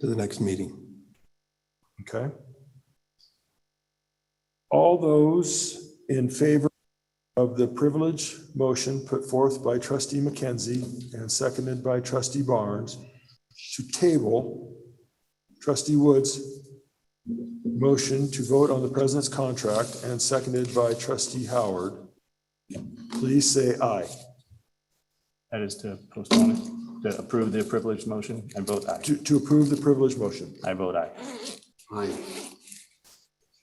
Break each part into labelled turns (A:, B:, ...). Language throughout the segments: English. A: to the next meeting.
B: Okay. All those in favor of the privilege motion put forth by trustee McKenzie and seconded by trustee Barnes to table trustee Woods' motion to vote on the president's contract and seconded by trustee Howard, please say aye.
C: That is to postpone, it, to approve the privileged motion and vote aye.
B: To, to approve the privilege motion.
C: I vote aye.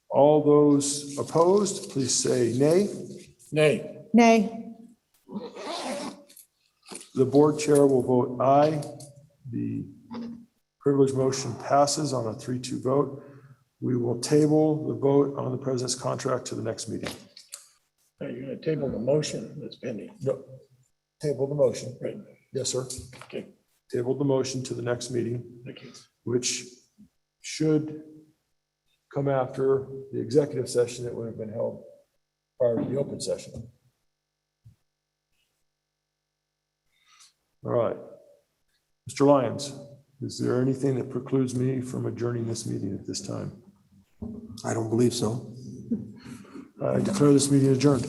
B: All those opposed, please say nay. Nay.
D: Nay.
B: The board chair will vote aye. The privilege motion passes on a three-two vote. We will table the vote on the president's contract to the next meeting.
E: Now, You're gonna table the motion that's pending.
B: No. Table the motion.
E: Right.
B: Yes, sir.
E: Okay,
B: Table the motion to the next meeting,
E: thank you.
B: which should come after the executive session that would have been held prior to the open session. All right. Mr. Lyons, is there anything that precludes me from adjourning this meeting at this time?
A: I don't believe so.
B: I declare this meeting adjourned.